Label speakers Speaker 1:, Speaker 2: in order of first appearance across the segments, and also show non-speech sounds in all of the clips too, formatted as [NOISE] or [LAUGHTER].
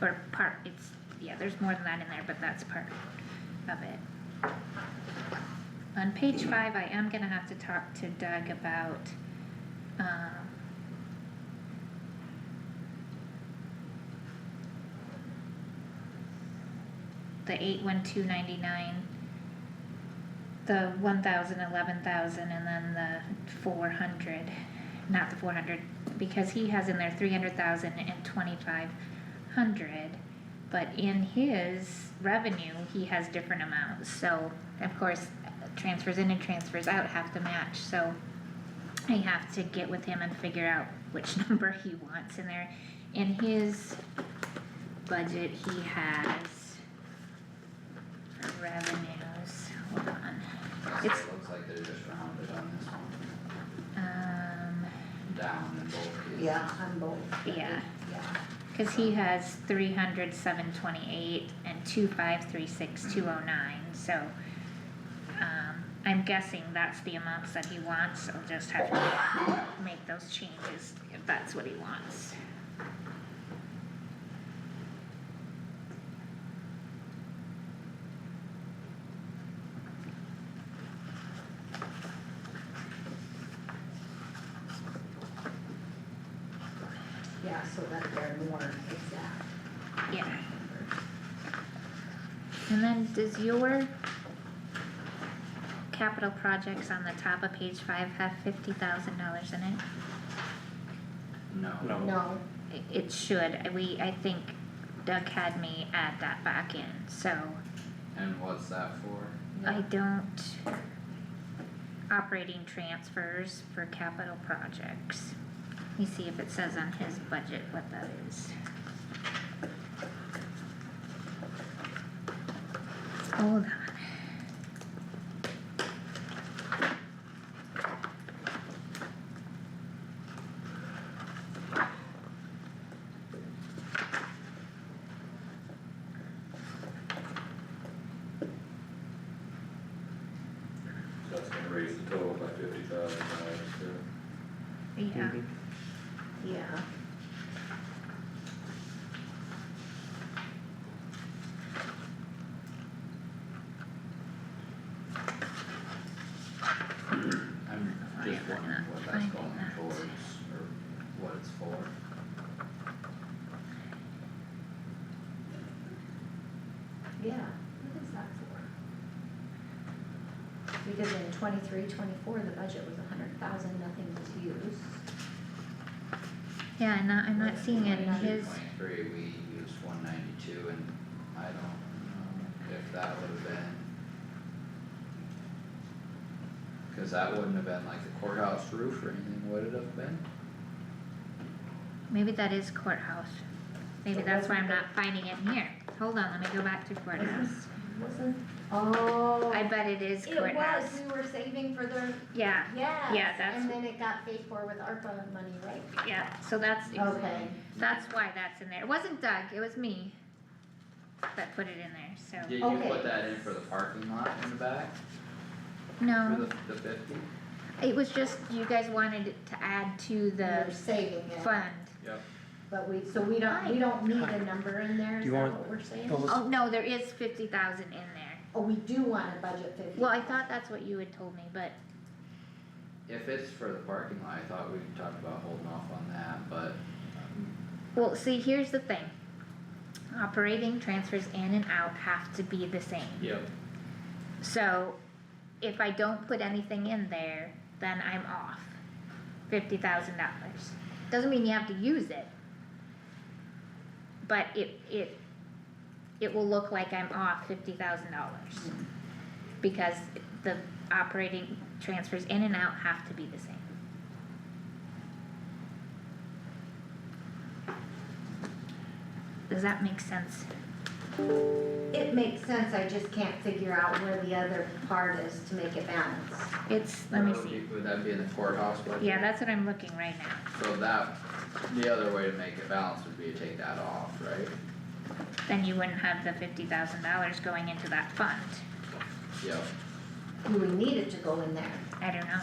Speaker 1: or part, it's, yeah, there's more than that in there, but that's part of it. On page five, I am gonna have to talk to Doug about, um. The eight one two ninety-nine, the one thousand, eleven thousand, and then the four hundred, not the four hundred, because he has in there three hundred thousand and twenty-five hundred. But in his revenue, he has different amounts, so of course, transfers in and transfers out have to match, so. I have to get with him and figure out which [LAUGHS] number he wants in there. In his budget, he has. for Revenues, hold on,
Speaker 2: So
Speaker 1: It's-
Speaker 2: it looks like they're just rounded on this one,
Speaker 1: um,
Speaker 2: down in both cases.
Speaker 3: Yeah, on both.
Speaker 1: Yeah.
Speaker 3: Yeah.
Speaker 1: cause he has three hundred seven twenty-eight and two five three six two oh nine, so. Um, I'm guessing that's the amounts that he wants, I'll just have to make those changes if that's what he wants.
Speaker 3: Yeah, so that they're more exact.
Speaker 1: Yeah. And then does your capital projects on the top of page five have fifty thousand dollars in it?
Speaker 2: No.
Speaker 4: No.
Speaker 3: No,
Speaker 1: I- It should, we, I think Doug had me add that back in, so
Speaker 2: And what's that for?
Speaker 1: I don't. Operating transfers for capital projects. Let me see if it says on his budget what that is. Hold on.
Speaker 5: So that's gonna raise the total by fifty thousand dollars, yeah.
Speaker 1: Yeah,
Speaker 3: yeah.
Speaker 2: I'm
Speaker 1: Oh, yeah,
Speaker 2: just
Speaker 1: we're
Speaker 2: wondering
Speaker 1: not
Speaker 2: what that's
Speaker 1: finding
Speaker 2: going
Speaker 1: that.
Speaker 2: towards, or what it's for.
Speaker 3: Yeah, what is that for? Because in twenty-three, twenty-four, the budget was a hundred thousand, nothing was used.
Speaker 1: yeah, I'm not, I'm not seeing it in his,
Speaker 2: 192.3, we used one ninety-two and I don't know if that would have been. Cause that wouldn't have been like the courthouse roof or anything, would it have been?
Speaker 1: maybe that is courthouse. Maybe that's why I'm not finding it in here. Hold on, let me go back to courthouse.
Speaker 3: Wasn't? Oh.
Speaker 1: I bet it is
Speaker 3: It was,
Speaker 1: courthouse.
Speaker 3: we were saving for the,
Speaker 1: Yeah,
Speaker 3: yes,
Speaker 1: that's-
Speaker 3: and then it got paid for with ARPA money, right?
Speaker 1: yeah, so that's, ex-
Speaker 3: Okay,
Speaker 1: that's why that's in there. It wasn't Doug, it was me that put it in there, so.
Speaker 2: Did you
Speaker 3: Okay.
Speaker 2: put that in for the parking lot in the back,
Speaker 1: No,
Speaker 2: for
Speaker 1: Um.
Speaker 2: the, the fifty?
Speaker 1: it was just you guys wanted it to add to
Speaker 3: we were
Speaker 1: the
Speaker 3: saving it,
Speaker 1: fund.
Speaker 3: but we, so we don't, we don't need a number in there,
Speaker 4: Do
Speaker 3: is
Speaker 4: you
Speaker 3: that
Speaker 4: want-
Speaker 3: what we're saying?
Speaker 4: Well, let's-
Speaker 1: Oh, no, there is fifty thousand in there.
Speaker 3: Oh, we do want a budget fifty.
Speaker 1: Well, I thought that's what you had told me, but
Speaker 2: If it's for the parking lot, I thought we talked about holding off on that, but um,
Speaker 1: Well, see, here's the thing. Operating transfers in and out have to be the same.
Speaker 2: Yep.
Speaker 1: So if I don't put anything in there, then I'm off fifty thousand dollars. Doesn't mean you have to use it. But it, it, it will look like I'm off fifty thousand dollars. Because the operating transfers in and out have to be the same. Does that make sense?
Speaker 3: It makes sense, I just can't figure out where the other part is to make it balance.
Speaker 1: It's, let me
Speaker 2: Would
Speaker 1: see.
Speaker 2: be- Would that be in the courthouse budget?
Speaker 1: Yeah, that's what I'm looking right now.
Speaker 2: So that, the other way to make it balance would be to take that off, right?
Speaker 1: then you wouldn't have the fifty thousand dollars going into that fund.
Speaker 2: Yep.
Speaker 3: Do we need it to go in there?
Speaker 1: I don't know.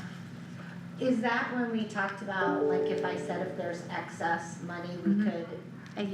Speaker 3: Is that when we talked about, like, if I said if there's excess money, we
Speaker 1: Mhm.
Speaker 3: could